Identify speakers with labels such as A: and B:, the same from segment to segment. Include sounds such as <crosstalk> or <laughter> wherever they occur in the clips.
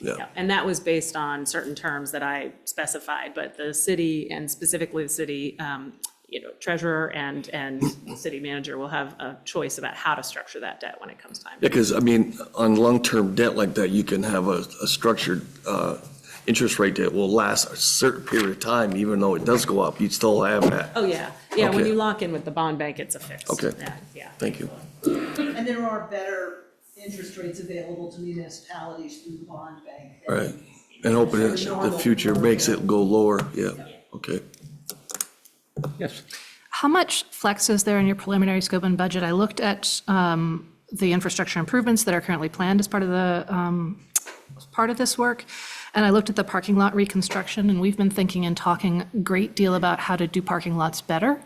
A: Yeah.
B: And that was based on certain terms that I specified, but the city and specifically the city, um, you know, treasurer and, and city manager will have a choice about how to structure that debt when it comes time.
A: Yeah, because, I mean, on long-term debt like that, you can have a, a structured uh, interest rate that will last a certain period of time, even though it does go up, you'd still have that.
B: Oh, yeah. Yeah, when
A: Okay.
B: you lock in with the bond bank, it's a fix.
A: Okay.
B: Yeah, Yeah.
A: Thank you.
C: And there are better interest rates available to municipalities through the bond bank. than-
A: Right. And hoping that the future makes it go lower, yeah, okay.
D: Yes.
E: How much flex is there in your preliminary scope and budget? I looked at um, the infrastructure improvements that are currently planned as part of the, um, as part of this work, and I looked at the parking lot reconstruction, and we've been thinking and talking a great deal about how to do parking lots better,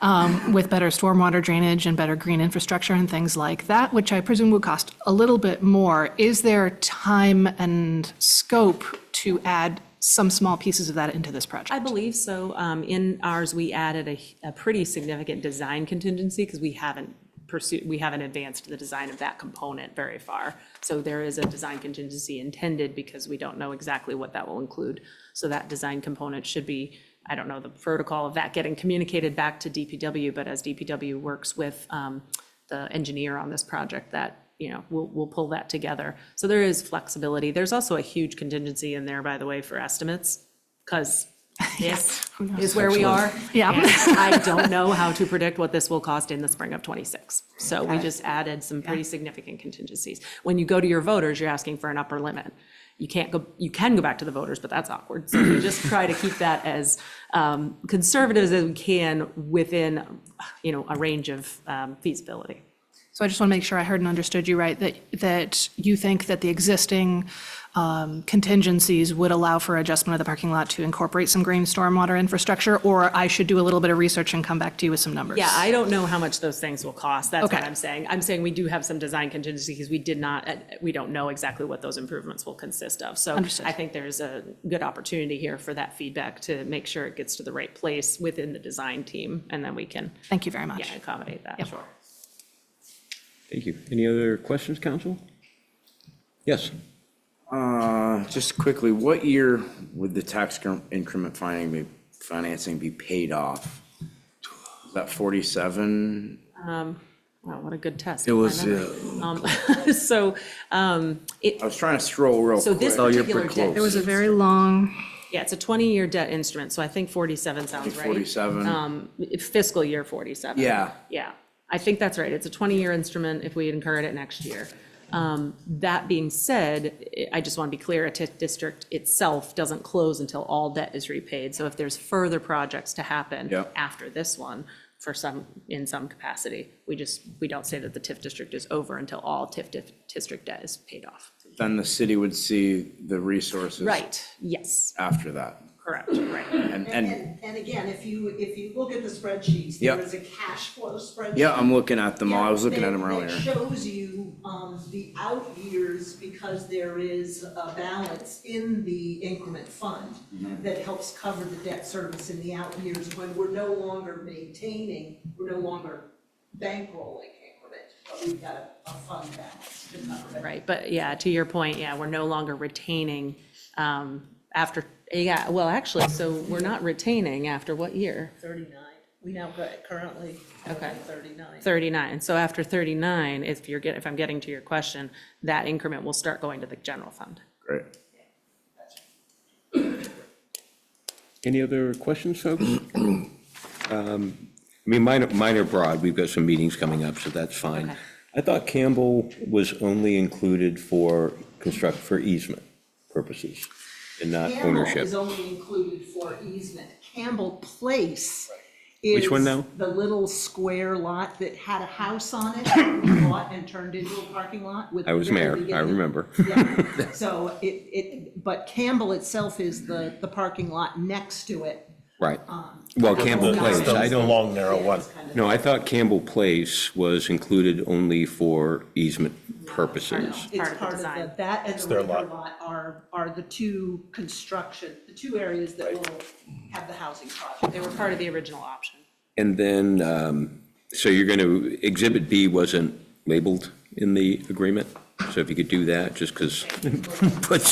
E: um, with better stormwater drainage and better green infrastructure and things like that, which I presume would cost a little bit more. Is there time and scope to add some small pieces of that into this project?
B: I believe so. Um, In ours, we added a, a pretty significant design contingency because we haven't pursued, we haven't advanced the design of that component very far. So there is a design contingency intended because we don't know exactly what that will include. So that design component should be, I don't know the protocol of that getting communicated back to DPW, but as DPW works with um, the engineer on this project, that, you know, we'll, we'll pull that together. So there is flexibility. There's also a huge contingency in there, by the way, for estimates, because this is where we are.
E: Yeah.
B: And <laughs> I don't know how to predict what this will cost in the spring of '26. So we just added some pretty significant contingencies. When you go to your voters, you're asking for an upper limit. You can't go, you can go back to the voters, but that's awkward. So we just try to keep that as um, conservative as we can within, you know, a range of um, feasibility.
E: So I just want to make sure I heard and understood you right, that, that you think that the existing um, contingencies would allow for adjustment of the parking lot to incorporate some green stormwater infrastructure, or I should do a little bit of research and come back to you with some numbers?
B: Yeah, I don't know how much those things will cost. That's what
E: Okay.
B: I'm saying. I'm saying we do have some design contingency because we did not, uh, we don't know exactly what those improvements will consist of. So
E: Understood.
B: I think there's a good opportunity here for that feedback to make sure it gets to the right place within the design team, and then we can,
E: Thank you very much.
B: yeah, accommodate that. Sure.
D: Thank you. Any other questions, council? Yes.
F: Uh, Just quickly, what year would the tax incre- increment finding be- financing be paid off? Is that 47?
B: Wow, what a good test.
A: It was,
B: My memory. Um, <laughs> So, um, it,
F: I was trying to scroll real
B: so this
F: quick.
A: you're
B: particular
A: pretty
B: debt,
A: close.
E: There was a very long,
B: yeah, it's a 20-year debt instrument, so I think 47 sounds right.
F: 47?
B: um, fiscal year 47.
F: Yeah.
B: Yeah, I think that's right. It's a 20-year instrument if we incur it next year. Um, That being said, I- I just want to be clear, a TIF district itself doesn't close until all debt is repaid. So if there's further projects to happen
F: Yep.
B: after this one, for some, in some capacity, we just, we don't say that the TIF district is over until all TIF dif- district debt is paid off.
F: Then the city would see the resources.
B: Right, yes,
F: After that.
B: correct, right.
F: And, and,
C: And, and again, if you, if you look at the spreadsheets,
F: Yeah.
C: there is a cash flow spreadsheet.
F: yeah, I'm looking at them all. I was looking at them
C: That-
F: earlier.
C: That shows you, um, the out years because there is a balance in the increment fund
F: Mm-hmm.
C: that helps cover the debt service in the out years when we're no longer maintaining, we're no longer bankrolling increment, but we've got a, a fund balance to cover it.
B: Right, but yeah, to your point, yeah, we're no longer retaining um, after, yeah, well, actually, so we're not retaining after what year?
C: Thirty-nine, we now got currently
B: Okay.
C: thirty-nine.
B: 39. So after 39, if you're getting, if I'm getting to your question, that increment will start going to the general fund.
F: Great.
D: Any other questions, folks? Um, I mean, mine, are- mine are broad. We've got some meetings coming up, so that's fine.
B: Okay.
D: I thought Campbell was only included for construct, for easement purposes and not
C: Campbell
D: ownership.
C: is only included for easement. Campbell Place is.
D: Which one now?
C: The little square lot that had a house on it, that we bought and turned into a parking lot with.
D: I was
C: the very
D: mayor, I
C: beginning.
D: remember. <laughs>
C: Yeah. So it, it, but Campbell itself is the, the parking lot next to it.
D: Right.
C: uh,
D: Well, Campbell
C: the-
D: Place, I don't.
G: long, narrow one.
D: No, I thought Campbell Place was included only for easement purposes.
B: Part
C: It's
B: of the
C: part of
B: design.
C: the, that and the
G: their
C: river
G: lot.
C: lot are, are the two construction, the two areas that will have the housing project.
B: They were part of the original option.
D: And then, um, so you're going to, Exhibit B wasn't labeled in the agreement? So if you could do that, just because,